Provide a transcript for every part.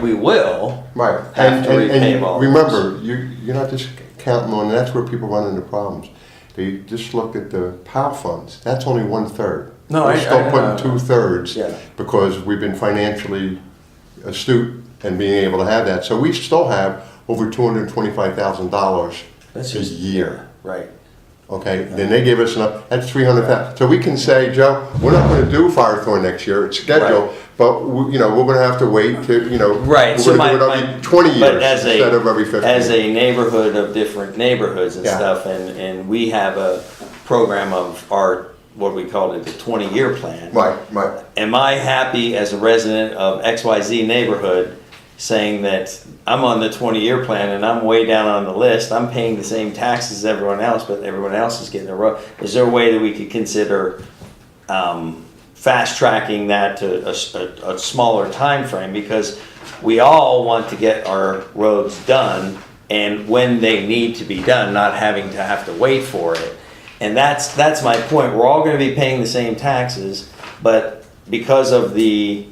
we will. Right. Have and, to and, repay and bonds. Remember, you, you're not just counting on, that's where people run into problems. They just look at the POW funds, that's only one third. No, I- We're I- still I- putting two thirds Yeah. because we've been financially astute and being able to have that. So we still have over two hundred and twenty-five thousand dollars a That's just- year. Right. Okay, then they gave us enough, that's three hundred thousand. So we can say, Joe, we're not gonna do Firethorn next year, it's scheduled, but, we- you know, we're gonna have to wait to, you know. Right. We're so gonna do my, it my- every twenty but years as a- instead of every fifty. As a neighborhood of different neighborhoods and Yeah. stuff, and, and we have a program of our, what we called it, the twenty-year plan. Right, right, Am I happy as a resident of XYZ neighborhood saying that I'm on the twenty-year plan and I'm way down on the list, I'm paying the same taxes as everyone else, but everyone else is getting a road? Is there a way that we could consider, um, fast tracking that to a, s- a- a smaller time frame because we all want to get our roads done and when they need to be done, not having to have to wait for it. And that's, that's my point. We're all gonna be paying the same taxes, but because of the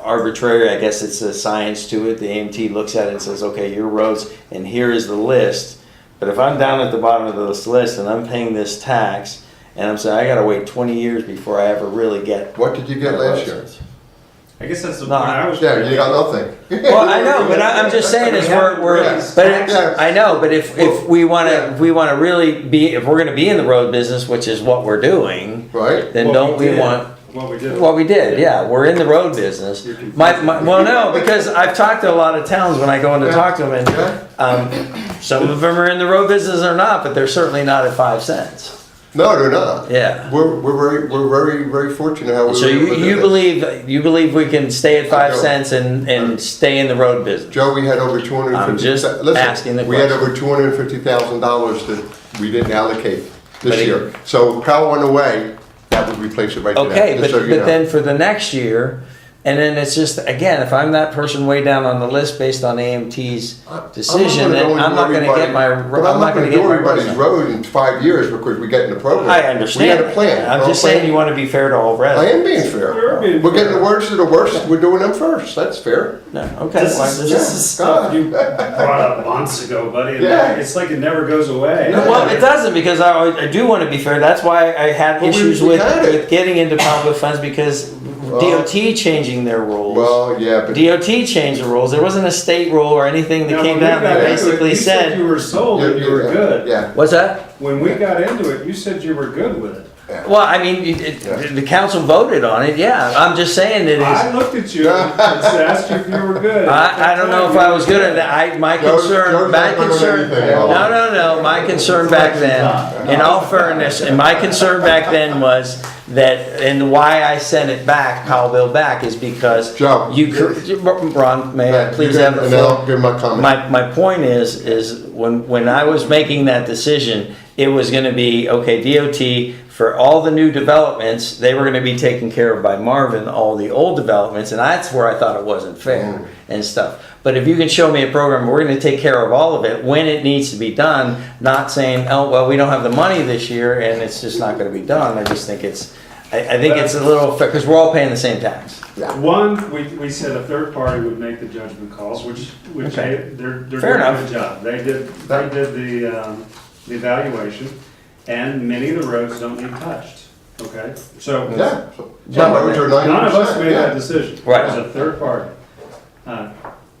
arbitrary, I guess it's a science to it, the AMT looks at it and says, okay, your roads, and here is the list. But if I'm down at the bottom of this list and I'm paying this tax, and I'm saying, I gotta wait twenty years before I ever really get. what did you get my last year? license." I guess that's the No, point I was. Yeah, you got nothing. Well, I know, but I, I'm just saying is we're, we're, Yes. but it- Yes. I know, but if, if we wanna, if we wanna really be, if we're gonna be in the road business, which is what we're doing, Right? then What don't we did- want What we did. Well, we did, yeah. We're in the road business. You're confused. My, my, well, no, because I've talked to a lot of towns when I go in to talk to them, and Yeah. um, some of them are in the road business or not, but they're certainly not at five cents. No, they're not. Yeah. We're, we're very, we're very, very fortunate how we. So were able you, to do you that. believe you believe we can stay at five don't. cents and, and stay in the road business? Joe, we had over two hundred and I'm fifty. just asking the We had question. over two hundred and fifty thousand dollars that we didn't allocate But this it- year. So if Powell went away, that would replace it right to that. Okay, just but so you but know. then for the next year, and then it's just again, if I'm that person way down on the list based on AMT's I- I'm not decision, gonna then go into I'm not going to everybody- get my ro- But I'm not gonna get do my roads everybody's done. road in five years because we get in the program. I understand. We had a plan. I'm Our just plan- saying you want to be fair to all I residents. am being fair. We're being We're getting the fair. worst of the worst, we're doing them first, that's fair. No, okay. This well, is, this this is- is stuff God. you brought up months ago, buddy. and Yeah. It's like it never goes away. No, Well, it doesn't because I, I do want to be fair. That's why I had Well, we- issues we with, had it. with getting into public funds because DOT changing their rules. Well, yeah, but DOT changed the rules. There wasn't a state rule or anything that Now, came when we down got that into it, basically you said, You were sold Yeah, and you were yeah, good. Yeah, What's that? When we got into it, you said you were good with it. Well, I mean, it, it, Yeah. the council voted on it. Yeah, I'm just saying it I is. looked at you and asked you if you were good. I, I don't know if I was good at that. I, my Joe's- concern, Joe's my not gonna do concern, anything at all. no, no, no, my concern back then, in all fairness, and my concern back then was that, and why I sent it back, Powellville back, is because Joe. you, could- Ron, may I Yeah, please you have can- the and I'll floor? give my comment. My, my point is, is when, when I was making that decision, it was gonna be, okay, DOT, for all the new developments, they were gonna be taken care of by Marvin, all the old developments, and that's where I thought it wasn't fair and stuff. But if you can show me a program, we're gonna take care of all of it when it needs to be done, not saying, oh, well, we don't have the money this year and it's just not gonna be done, I just think it's, I, I think it's a little, fair cause we're all paying the same tax. One, we, we said a third party would make the judgment calls, which, which Okay. they, they're, they're Fair doing a enough. good job. They did, they That- did the, um, the evaluation, and many of the roads don't need touched, okay? So, none yeah. Some roads are ninety of us made that percent, decision. Right. It was a third party. Uh,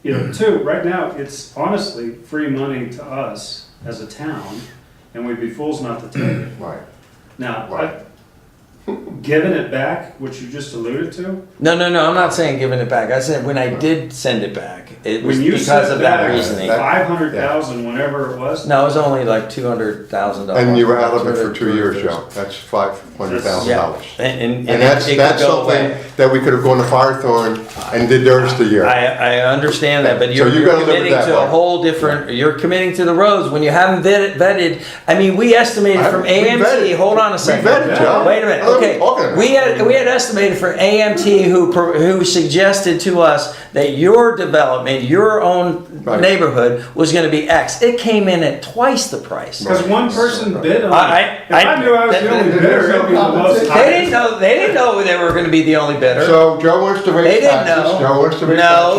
You know, two, right now, it's honestly free money to us as a town, and we'd be fools not to take it. yeah. Right. Now, Right. I- giving it back, which you just alluded to, No, no, no, I'm not saying giving it back, I said when I did send it back, it was When you because of that reasoning. Five hundred thousand, whenever it was. No, it was only like two hundred thousand dollars. And you were out of it for two years, Joe, that's five hundred thousand Yeah, dollars. and, and, and And that's, it could that's go something away. that we could have gone to Firethorn and did theirs the year. I, I understand that, but So you're, you you're gotta look at committing that to a way. whole different, you're committing to the roads when you haven't vetted, vetted, I mean, we estimated I- from we AMT, vetted. hold on a We second. vetted, Joe. Wait a minute, What are we okay, talking about? we had, we had estimated for AMT who, pro- who suggested to us that your development, your own Right. neighborhood was gonna be X. It came in at twice the price. Because one person bid on I- it. If I- I knew I was the only bidder, it'd be the most. They didn't know, they didn't know they were gonna be the only bidder. So Joe wants to They raise didn't taxes, know. Joe wants to raise No, taxes.